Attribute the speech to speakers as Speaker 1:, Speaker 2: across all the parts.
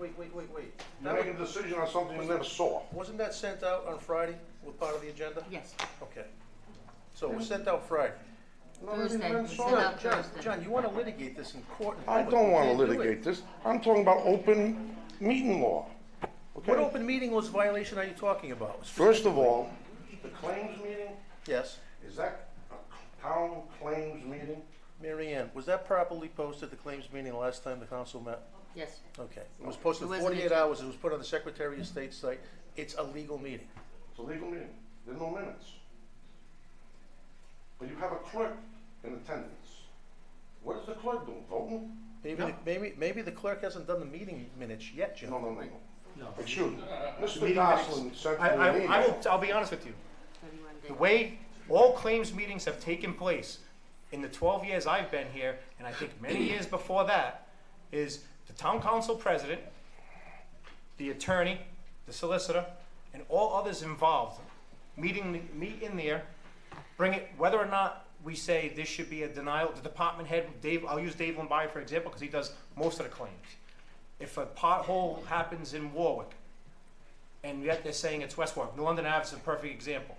Speaker 1: wait, wait, wait, wait.
Speaker 2: You're making a decision on something you never saw.
Speaker 1: Wasn't that sent out on Friday with part of the agenda?
Speaker 3: Yes,
Speaker 1: Okay. So it was sent out Friday.
Speaker 2: No, I didn't- I
Speaker 3: Thursday,
Speaker 2: didn't
Speaker 3: we
Speaker 2: saw
Speaker 3: sent
Speaker 2: that.
Speaker 3: out-
Speaker 1: John,
Speaker 3: Uh, Thursday.
Speaker 1: John, you wanna litigate this in court? in
Speaker 2: I
Speaker 1: public.
Speaker 2: don't
Speaker 1: You
Speaker 2: want to
Speaker 1: can't do it.
Speaker 2: litigate this. I'm talking about open meeting law.
Speaker 1: What
Speaker 2: Okay?
Speaker 1: open meeting laws violation are you talking about?
Speaker 2: First of all, the claims meeting,
Speaker 1: Yes,
Speaker 2: is that a town claims meeting?
Speaker 1: Mary Ann, was that properly posted, the claims meeting last time the council met?
Speaker 3: yes.
Speaker 1: Okay, it was posted
Speaker 3: It wasn't
Speaker 1: forty-eight
Speaker 3: adjourned.
Speaker 1: hours, it was put on the Secretary of State's site, it's a legal meeting.
Speaker 2: It's a legal meeting. There's no minutes. But you have a clerk in attendance. What is the clerk doing? Voting?
Speaker 1: Maybe, the- maybe, maybe the clerk hasn't done the meeting minutes yet, John.
Speaker 2: No, no, no,
Speaker 4: No.
Speaker 2: no. Excuse me. Mr.
Speaker 4: meeting
Speaker 2: Goslin sent me
Speaker 4: I, I,
Speaker 2: an
Speaker 4: I will,
Speaker 2: email.
Speaker 4: I'll be honest with you.
Speaker 3: 31 days.
Speaker 4: The way all claims meetings have taken place in the 12 years I've been here, and I think many years before that, is the town council president, the attorney, the solicitor, and all others involved meeting, meet in there, bring it, whether or not we say this should be a denial, the department head, Dave, I'll use Dave Lombardi for example, because he does most of the claims. If a pothole happens in Warwick, and yet they're saying it's West Warwick, New London Ave is a perfect example.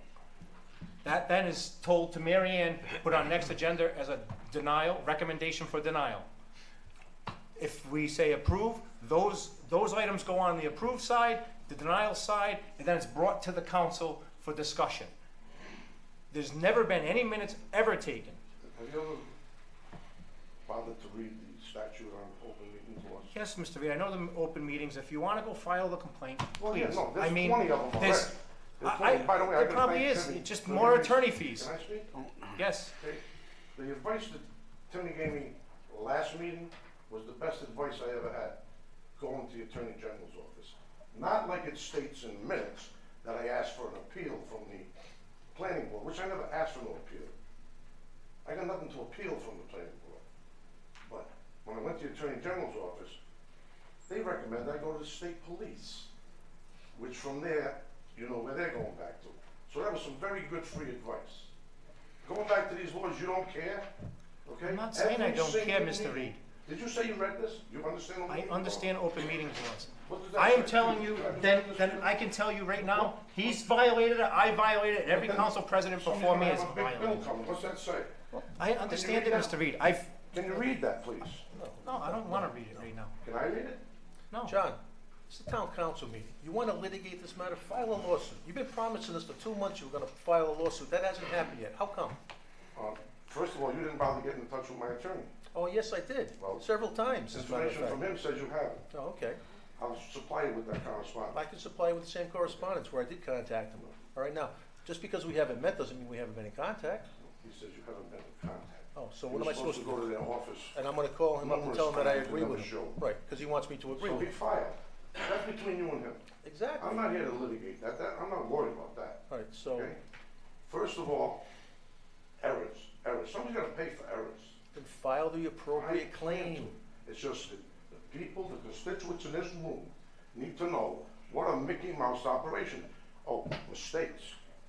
Speaker 4: That then is told to Mary Ann, put on next agenda as a denial, recommendation for denial. If we say approve, those, those items go on the approved side, the denial side, and then it's brought to the council for discussion. There's never been any minutes ever taken.
Speaker 2: Have you ever bothered to read the statute on open meetings laws?
Speaker 4: Yes, Mr. Reed, I know the open meetings, if you wanna go file the complaint,
Speaker 2: Well, yeah,
Speaker 4: please.
Speaker 2: no,
Speaker 4: I
Speaker 2: there's
Speaker 4: mean,
Speaker 2: 20 of them already.
Speaker 4: there's-
Speaker 2: There's
Speaker 4: I-
Speaker 2: 20.
Speaker 4: I-
Speaker 2: By the way, I
Speaker 4: there
Speaker 2: gotta
Speaker 4: probably
Speaker 2: thank
Speaker 4: is.
Speaker 2: Timmy.
Speaker 4: It's just
Speaker 2: Timmy
Speaker 4: more
Speaker 2: Gaines.
Speaker 4: attorney fees.
Speaker 2: Can I speak?
Speaker 4: Yes,
Speaker 2: Okay. The advice that Timmy gave me last meeting was the best advice I ever had, going to the Attorney General's office. Not like it states in minutes that I asked for an appeal from the planning board, which I never asked for no appeal. I got nothing to appeal from the planning board. But when I went to the Attorney General's office, they recommend I go to the state police, which from there, you know where they're going back to. So that was some very good free advice. Going back to these laws, you don't care, okay?
Speaker 4: I'm not saying I
Speaker 2: Every
Speaker 4: don't care,
Speaker 2: single
Speaker 4: Mr.
Speaker 2: meeting-
Speaker 4: Reed.
Speaker 2: Did you say you read this? You understand? what I'm
Speaker 4: I
Speaker 2: reading?
Speaker 4: understand open meetings laws.
Speaker 2: What does that
Speaker 4: I am
Speaker 2: say?
Speaker 4: telling
Speaker 2: Do
Speaker 4: you,
Speaker 2: I
Speaker 4: then,
Speaker 2: understand
Speaker 4: then
Speaker 2: this?
Speaker 4: I can tell you right now, he's violated it, I violated it, every
Speaker 2: Then
Speaker 4: council president
Speaker 2: Somebody's
Speaker 4: before me
Speaker 2: gonna
Speaker 4: has
Speaker 2: have a big bill
Speaker 4: violated it.
Speaker 2: coming. What's that say?
Speaker 4: I understand it,
Speaker 2: read
Speaker 4: Mr.
Speaker 2: that?
Speaker 4: Reed, I've,
Speaker 2: Can you read that, please?
Speaker 4: no, I don't wanna read it right now,
Speaker 2: Can I read it?
Speaker 4: no.
Speaker 1: John, it's a town council meeting. You want to litigate this matter, file a lawsuit. You've been promising us for two months you were going to file a lawsuit. That hasn't happened yet. How come?
Speaker 2: Uh, First of all, you didn't bother getting in touch with my attorney.
Speaker 1: Oh, yes, I did,
Speaker 2: Well,
Speaker 1: several times, as a matter of
Speaker 2: Information from
Speaker 1: fact.
Speaker 2: him says you have it.
Speaker 1: Oh, okay.
Speaker 2: I'll supply you with that correspondence.
Speaker 1: I can supply you with the same correspondence where I did contact him. All right, now, just because we haven't met doesn't mean we haven't been in contact.
Speaker 2: He says you haven't been in contact.
Speaker 1: Oh, so what am I supposed to
Speaker 2: You're
Speaker 1: do?
Speaker 2: supposed to go to their office.
Speaker 1: And I'm going to call him up and tell him that I
Speaker 2: Numerous times,
Speaker 1: agree with him.
Speaker 2: another show.
Speaker 1: Right, because he wants me to agree
Speaker 2: So
Speaker 1: with
Speaker 2: he
Speaker 1: him.
Speaker 2: filed. That's between you and him.
Speaker 1: Exactly.
Speaker 2: I'm not here to litigate that. That, I'm not worried about that.
Speaker 1: All right, so
Speaker 2: Okay? First of all, errors, errors. Somebody's gotta pay for errors.
Speaker 1: then file the
Speaker 2: I
Speaker 1: appropriate
Speaker 2: can't
Speaker 1: claim.
Speaker 2: do it. It's just that the people, the constituents in this room need to know what a Mickey Mouse operation. Oh, mistakes.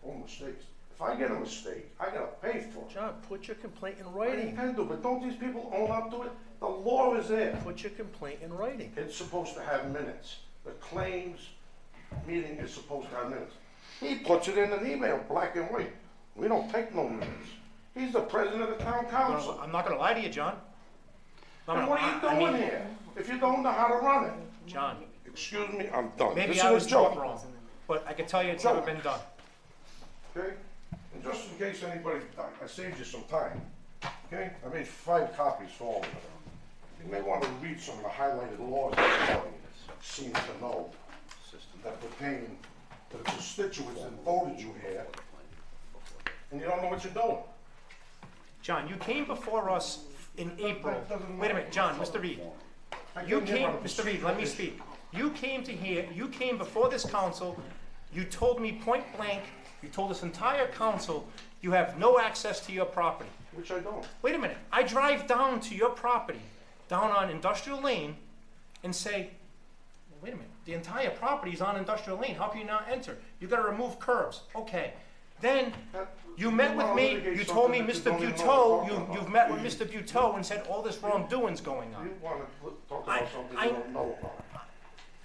Speaker 2: Oh, mistakes. If I get a mistake, I gotta pay for it.
Speaker 1: John, put your complaint in
Speaker 2: I
Speaker 1: writing.
Speaker 2: intend to, but don't these people own up to it? The law is there.
Speaker 1: Put your complaint in writing.
Speaker 2: It's supposed to have minutes. The claims meeting is supposed to have minutes. He puts it in an email, black and white. We don't take no minutes. He's the president of the town
Speaker 4: I'm
Speaker 2: council.
Speaker 4: not- I'm not gonna lie to you, John. I'm
Speaker 2: And
Speaker 4: not-
Speaker 2: what are
Speaker 4: I- I
Speaker 2: you
Speaker 4: mean,
Speaker 2: doing here? If you don't know how to run it?
Speaker 4: John,
Speaker 2: Excuse me, I'm done.
Speaker 4: maybe
Speaker 2: This
Speaker 4: I
Speaker 2: is
Speaker 4: was
Speaker 2: a
Speaker 4: taught
Speaker 2: joke,
Speaker 4: wrong, but I can tell you it's never
Speaker 2: Joke.
Speaker 4: been done.
Speaker 2: okay? And just in case anybody, I- I saved you some time, okay? I made five copies for all of them. You may want to read some of the highlighted laws that the audience seems to know that pertain to the constituents that voted you here, and you don't know what you're doing.
Speaker 4: John, you came before us in April. Wait a minute, John, Mr. Reed.
Speaker 2: I
Speaker 4: You
Speaker 2: couldn't hear
Speaker 4: came,
Speaker 2: what I was
Speaker 4: Mr. Reed, let me speak. You came to here, you came before this council, you told me point blank, you told this entire council, you have no access to your property.
Speaker 2: Which I don't.
Speaker 4: Wait a minute, I drive down to your property, down on Industrial Lane, and say, wait a minute, the entire property is on Industrial Lane, how can you not enter? You gotta remove curbs, okay. Then, you met with me, you told me, Mr. Buteau, you, you've met with Mr. Buteau and said all this wrongdoing's going on.
Speaker 2: You want to talk
Speaker 4: I-
Speaker 2: about something
Speaker 4: I-
Speaker 2: you don't know about.